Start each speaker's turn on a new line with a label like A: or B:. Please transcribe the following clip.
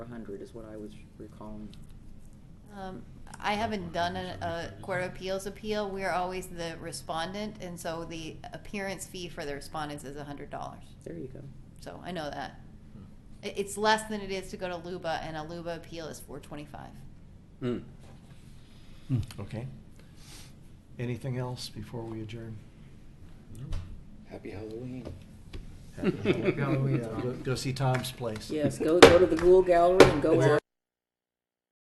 A: hundred is what I was recalling.
B: Um, I haven't done a, a court of appeals appeal. We're always the respondent, and so the appearance fee for the respondents is a hundred dollars.
A: There you go.
B: So I know that. It, it's less than it is to go to Luba, and a Luba appeal is four twenty-five.
A: Mm.
C: Okay. Anything else before we adjourn?
D: Happy Halloween.
C: Happy Halloween. Go go see Tom's Place.
A: Yes, go, go to the Google Gallery and go
C: Where-
A: out.